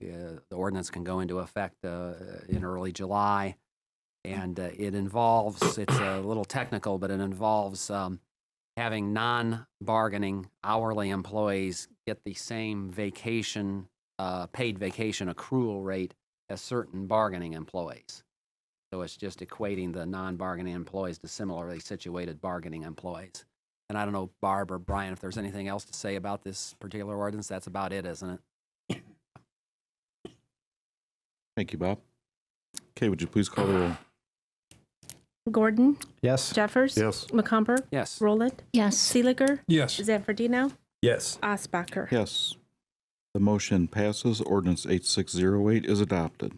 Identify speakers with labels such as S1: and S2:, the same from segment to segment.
S1: uh, the ordinance can go into effect uh, in early July. And uh, it involves, it's a little technical, but it involves um, having non-bargaining hourly employees get the same vacation, uh, paid vacation accrual rate as certain bargaining employees. So it's just equating the non-bargaining employees to similarly situated bargaining employees. And I don't know, Barb or Brian, if there's anything else to say about this particular ordinance, that's about it, isn't it?
S2: Thank you, Bob. Okay, would you please call the roll?
S3: Gordon,
S4: Yes.
S3: Jeffers.
S5: Yes.
S3: McComber,
S1: Yes.
S3: Roland,
S6: Yes.
S3: Seeliger,
S5: Yes.
S3: Zanfordino,
S4: Yes.
S3: Osbacher.
S2: Yes. The motion passes. Ordinance 8608 is adopted.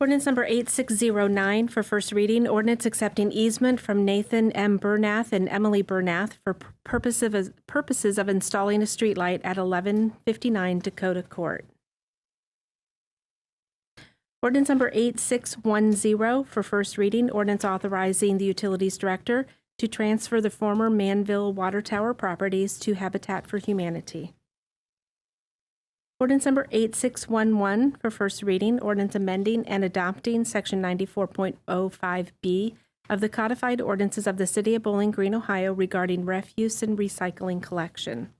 S3: Ordinance number 8609 for first reading, ordinance accepting easement from Nathan M. Bernath and Emily Bernath for pur- purpose of- purposes of installing a streetlight at 1159 Dakota Court. Ordinance number 8610 for first reading, ordinance authorizing the Utilities Director to transfer the former Manville Water Tower properties to Habitat for Humanity. Ordinance number 8611 for first reading, ordinance amending and adopting section 94.05B of the codified ordinances of the city of Bowling Green, Ohio regarding refuse and recycling collection.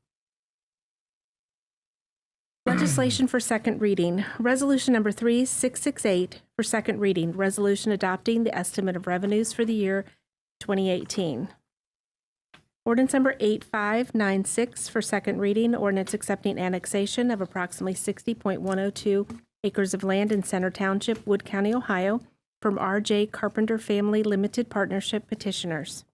S3: Legislation for second reading, resolution number 3668 for second reading, resolution adopting the estimate of revenues for the year 2018. Ordinance number 8596 for second reading, ordinance accepting annexation of approximately 60.102 acres of land in Center Township, Wood County, Ohio, from R.J. Carpenter Family Limited Partnership petitioners.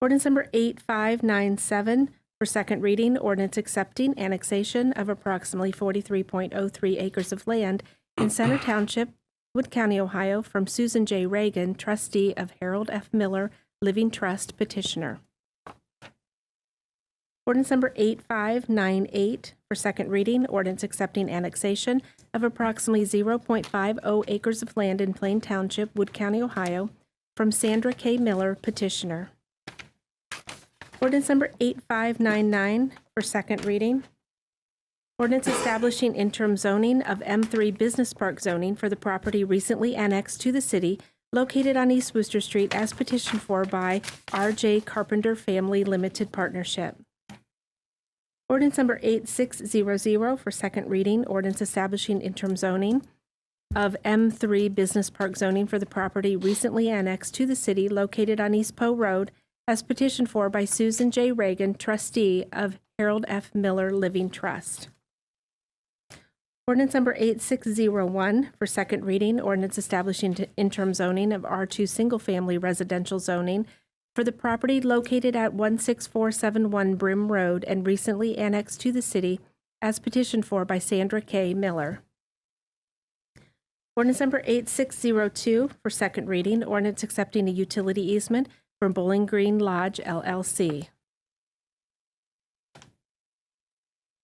S3: Ordinance number 8597 for second reading, ordinance accepting annexation of approximately 43.03 acres of land in Center Township, Wood County, Ohio, from Susan J. Reagan, trustee of Harold F. Miller Living Trust petitioner. Ordinance number 8598 for second reading, ordinance accepting annexation of approximately 0.50 acres of land in Plain Township, Wood County, Ohio, from Sandra K. Miller petitioner. Ordinance number 8599 for second reading, Ordinance establishing interim zoning of M3 Business Park zoning for the property recently annexed to the city located on East Wooster Street as petitioned for by RJ Carpenter Family Limited Partnership. Ordinance number 8600 for second reading, ordinance establishing interim zoning of M3 Business Park zoning for the property recently annexed to the city located on East Poe Road as petitioned for by Susan J. Reagan, trustee of Harold F. Miller Living Trust. Ordinance number 8601 for second reading, ordinance establishing t- interim zoning of R2 Single Family Residential Zoning for the property located at 16471 Brim Road and recently annexed to the city as petitioned for by Sandra K. Miller. Ordinance number 8602 for second reading, ordinance accepting a utility easement from Bowling Green Lodge LLC.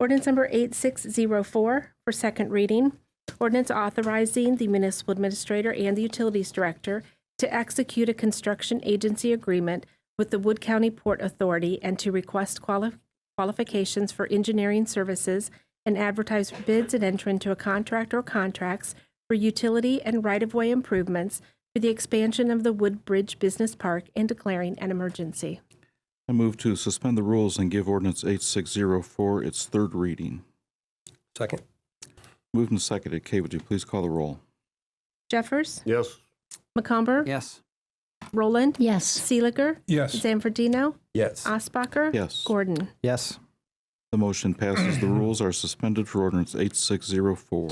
S3: Ordinance number 8604 for second reading. Ordinance authorizing the municipal administrator and the utilities director to execute a construction agency agreement with the Wood County Port Authority and to request quali- qualifications for engineering services and advertise for bids and enter into a contract or contracts for utility and right-of-way improvements for the expansion of the Woodbridge Business Park and declaring an emergency.
S2: I move to suspend the rules and give ordinance 8604 its third reading.
S4: Second.
S2: Moved and seconded. Kay, would you please call the roll?
S3: Jeffers?
S5: Yes.
S3: McComber?
S1: Yes.
S3: Roland?
S6: Yes.
S3: Seeliger?
S5: Yes.
S3: Zanfordino?
S4: Yes.
S3: Osbacher?
S2: Yes.
S3: Gordon?
S4: Yes.
S2: The motion passes. The rules are suspended for ordinance 8604.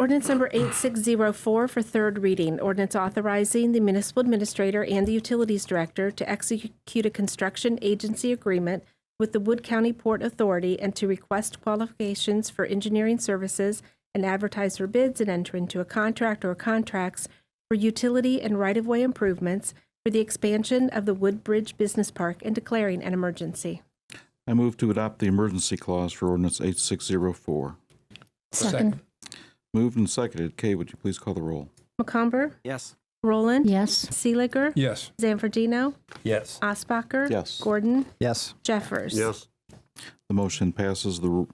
S3: Ordinance number 8604 for third reading. Ordinance authorizing the municipal administrator and the utilities director to execute a construction agency agreement with the Wood County Port Authority and to request qualifications for engineering services and advertise for bids and enter into a contract or contracts for utility and right-of-way improvements for the expansion of the Woodbridge Business Park and declaring an emergency.
S2: I move to adopt the emergency clause for ordinance 8604.
S6: Second.
S2: Moved and seconded. Kay, would you please call the roll?
S3: McComber?
S1: Yes.
S3: Roland?
S6: Yes.
S3: Seeliger?
S5: Yes.
S3: Zanfordino?
S4: Yes.
S3: Osbacher?
S2: Yes.
S3: Gordon?
S4: Yes.
S3: Jeffers?
S5: Yes.
S2: The motion passes. The ru-